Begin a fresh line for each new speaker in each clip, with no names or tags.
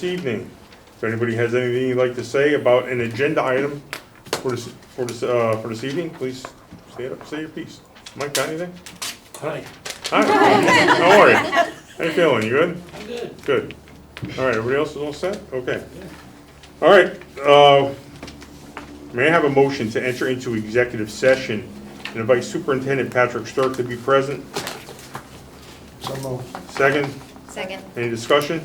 this evening. If anybody has anything you'd like to say about an agenda item for this, for this, uh, for this evening, please say it, say your piece. Mike, got anything?
Hi,
Hi, how are you? How you feeling, you good?
I'm good.
Good. All right, everybody else is all set? Okay. All right, uh, may I have a motion to enter into executive session and invite Superintendent Patrick Stark to be present?
So moved.
Second,
Second.
any discussion?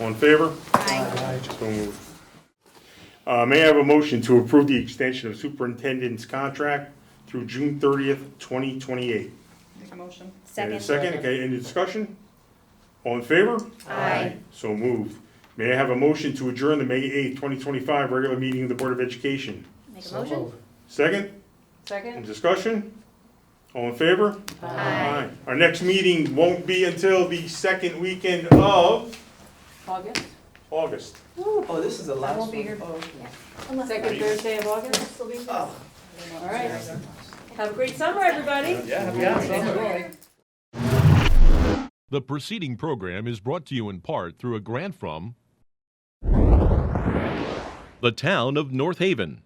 All in favor?
Aye.
Aye.
So moved. Uh, May I have a motion to approve the extension of superintendent's contract through June 30th, 2028?
Make a motion.
And a
Second.
second, okay, any discussion? All in favor?
Aye.
So moved. May I have a motion to adjourn the May 8th, 2025 regular meeting of the Board of Education?
Make a
So
motion?
moved.
Second, any
Second?
discussion? All in favor?
Aye.
Our next meeting won't be until the second weekend of
August?
August.
Oh, this is the
I
last
won't be
one.
here.
Unless-
Second Thursday of August?
Oh.
All right. Have a great summer, everybody.
Yeah, yeah.
The preceding program is brought to you in part through a grant from the town of North Haven.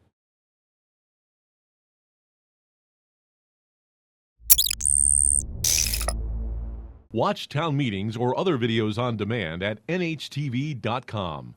Watch town meetings or other videos on demand at nhtv.com.